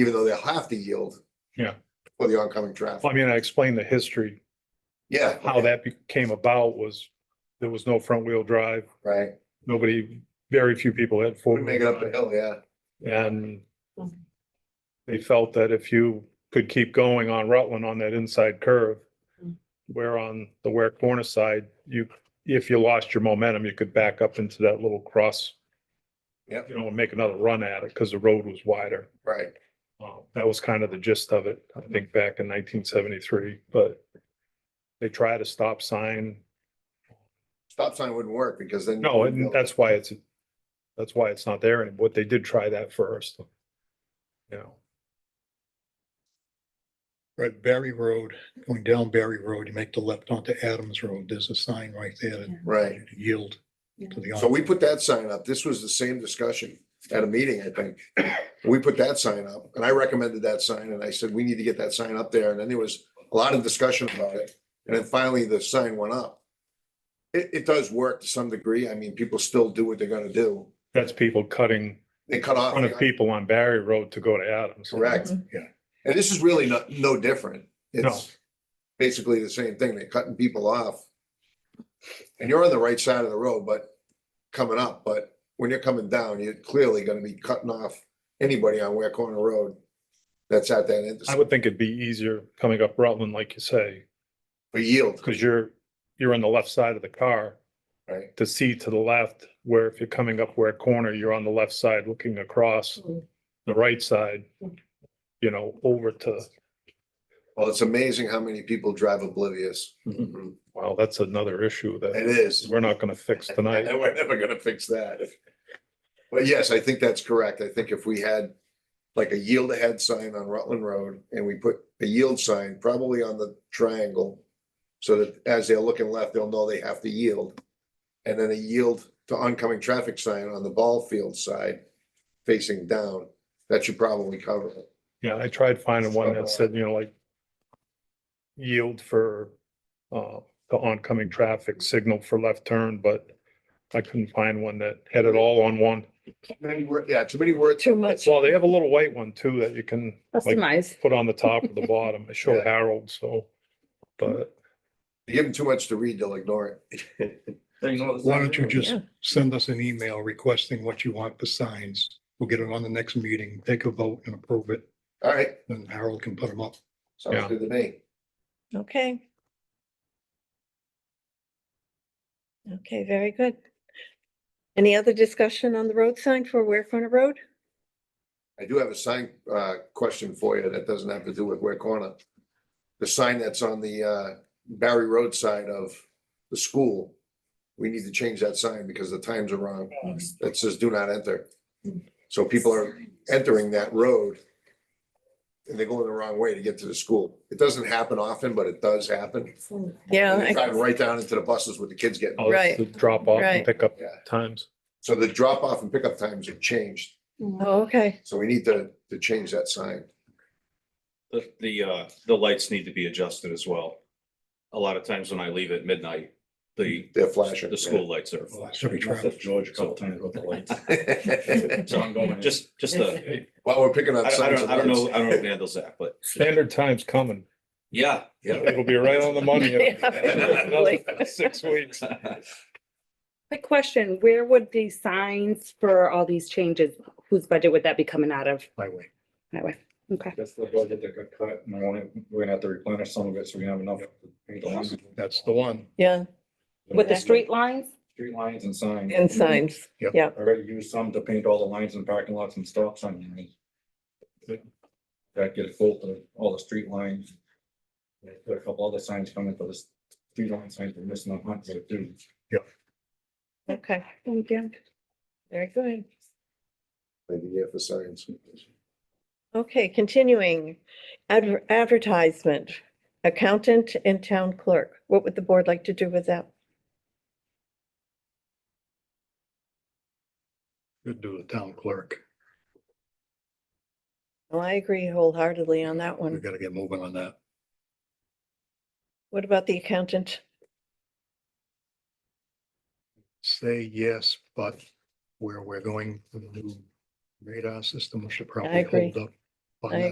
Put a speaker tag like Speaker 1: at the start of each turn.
Speaker 1: even though they'll have to yield.
Speaker 2: Yeah.
Speaker 1: For the oncoming
Speaker 2: Well,
Speaker 1: traffic.
Speaker 2: I mean, I explained the history,
Speaker 1: Yeah.
Speaker 2: how that be- came about was there was no front wheel drive.
Speaker 1: Right.
Speaker 2: Nobody, very few people had four.
Speaker 1: We make it up the hill, yeah.
Speaker 2: And they felt that if you could keep going on Rutland on that inside curve, where on the Ware Corner side, you, if you lost your momentum, you could back up into that little cross.
Speaker 1: Yep.
Speaker 2: You know, and make another run at it because the road was wider.
Speaker 1: Right.
Speaker 2: Uh, That was kind of the gist of it, I think, back in nineteen seventy-three, but they tried a stop sign.
Speaker 1: Stop sign wouldn't work because then.
Speaker 2: No, and that's why it's, that's why it's not there. And what they did try that first. You know,
Speaker 3: Right, Barry Road, going down Barry Road, you make the left onto Adams Road, there's a sign right there that
Speaker 1: Right.
Speaker 3: yield
Speaker 4: Yeah.
Speaker 3: to the.
Speaker 1: So we put that sign up. This was the same discussion at a meeting, I think. We put that sign up and I recommended that sign and I said, we need to get that sign up there. And then there was a lot of discussion about it. And then finally the sign went up. It, it does work to some degree. I mean, people still do what they're gonna do.
Speaker 2: that's people cutting
Speaker 1: They cut
Speaker 2: in
Speaker 1: off.
Speaker 2: front of people on Barry Road to go to Adams.
Speaker 1: Correct.
Speaker 3: Yeah.
Speaker 1: And this is really no, no different.
Speaker 2: No.
Speaker 1: It's basically the same thing. They're cutting people off. And you're on the right side of the road, but coming up, but when you're coming down, you're clearly gonna be cutting off anybody on Ware Corner Road. That's at that
Speaker 2: I
Speaker 1: intersection
Speaker 2: would think it'd be easier coming up Rutland, like you say,
Speaker 1: for yield,
Speaker 2: because you're, you're on the left side of the car
Speaker 1: right?
Speaker 2: to see to the left, where if you're coming up where corner, you're on the left side looking across the right side, you know, over to,
Speaker 1: Well, it's amazing how many people drive oblivious.
Speaker 2: Mhm. wow, that's another issue
Speaker 1: It
Speaker 2: that
Speaker 1: is.
Speaker 2: we're not gonna fix tonight.
Speaker 1: And we're never gonna fix that. But yes, I think that's correct. I think if we had like a yield ahead sign on Rutland Road and we put a yield sign probably on the triangle. So that as they're looking left, they'll know they have to yield. And then a yield to oncoming traffic sign on the ball field side facing down, that should probably cover it.
Speaker 2: Yeah, I tried finding one that said, you know, like yield for uh the oncoming traffic signal for left turn, but I couldn't find one that had it all on one.
Speaker 1: Many wor- yeah, too many words.
Speaker 4: Too much
Speaker 2: Well, they have a little white one too that you can like
Speaker 4: customized.
Speaker 2: put on the top or the bottom. I showed
Speaker 1: Yeah.
Speaker 2: Harold, so. But
Speaker 1: You give them too much to read, they'll ignore it.
Speaker 3: Why don't you just
Speaker 4: Yeah.
Speaker 3: send us an email requesting what you want for signs? We'll get it on the next meeting, take a vote and approve it,
Speaker 1: All right,
Speaker 3: then Harold can put them up.
Speaker 1: sounds
Speaker 2: Yeah.
Speaker 1: good to me.
Speaker 4: Okay. Okay, very good. Any other discussion on the road sign for Ware Corner Road?
Speaker 1: I do have a sign, uh, question for you that doesn't have to do with Ware Corner. The sign that's on the, uh, Barry Road side of the school. We need to change that sign because the times are wrong. That says do not enter. So people are entering that road. And they're going the wrong way to get to the school. It doesn't happen often, but it does happen.
Speaker 4: Yeah,
Speaker 1: And they
Speaker 4: I-
Speaker 1: drive right down into the buses with Oh, the kids getting.
Speaker 2: I'll
Speaker 4: Right.
Speaker 2: drop off and
Speaker 4: Right.
Speaker 2: pick up
Speaker 1: Yeah.
Speaker 2: times.
Speaker 1: So the drop off and pickup times have changed.
Speaker 4: oh, okay.
Speaker 1: So we need to, to change that sign.
Speaker 5: The, the, uh, the lights need to be adjusted as well. A lot of times when I leave at midnight, the,
Speaker 1: They're flashing.
Speaker 5: the school lights are.
Speaker 3: Well, Should be traveling.
Speaker 6: George a couple times about the lights.
Speaker 5: So I'm going, just, just the,
Speaker 1: While we're picking
Speaker 5: I
Speaker 1: up
Speaker 5: I
Speaker 1: signs.
Speaker 5: don't,
Speaker 1: and
Speaker 5: I don't
Speaker 1: lights.
Speaker 5: know, I don't know who handles that, but
Speaker 2: Standard time's coming.
Speaker 5: yeah.
Speaker 1: Yeah.
Speaker 2: It'll be right on the money. in
Speaker 4: Yeah,
Speaker 2: another Six weeks.
Speaker 7: Quick question, where would the signs for all these changes, whose budget would that be coming out of?
Speaker 6: Highway.
Speaker 7: Highway, okay.
Speaker 6: That's the budget that got cut and I want to, we're gonna have to replenish some of it so we have enough. to pay the lines.
Speaker 2: That's the one.
Speaker 4: Yeah,
Speaker 7: With the street lines?
Speaker 6: Street lines and signs.
Speaker 4: and signs.
Speaker 6: Already used some to paint all the lines and parking lots and stop signs. That get full to all the street lines. Yeah, Put a couple other signs coming for this, street line signs we're missing on Hunt Road too.
Speaker 4: Okay,
Speaker 7: Thank you.
Speaker 4: very good.
Speaker 1: Maybe yeah, for signs.
Speaker 4: Okay, continuing. Adver- Advertisement, accountant and town clerk. What would the board like to do with that?
Speaker 3: Could do the town clerk.
Speaker 4: Well, I agree wholeheartedly on that
Speaker 3: We
Speaker 4: one.
Speaker 3: gotta get moving on that.
Speaker 4: What about the accountant?
Speaker 3: Say yes, but where we're going, with the new radar system we should
Speaker 4: I
Speaker 3: probably
Speaker 4: agree.
Speaker 3: hold up on
Speaker 4: I
Speaker 3: that.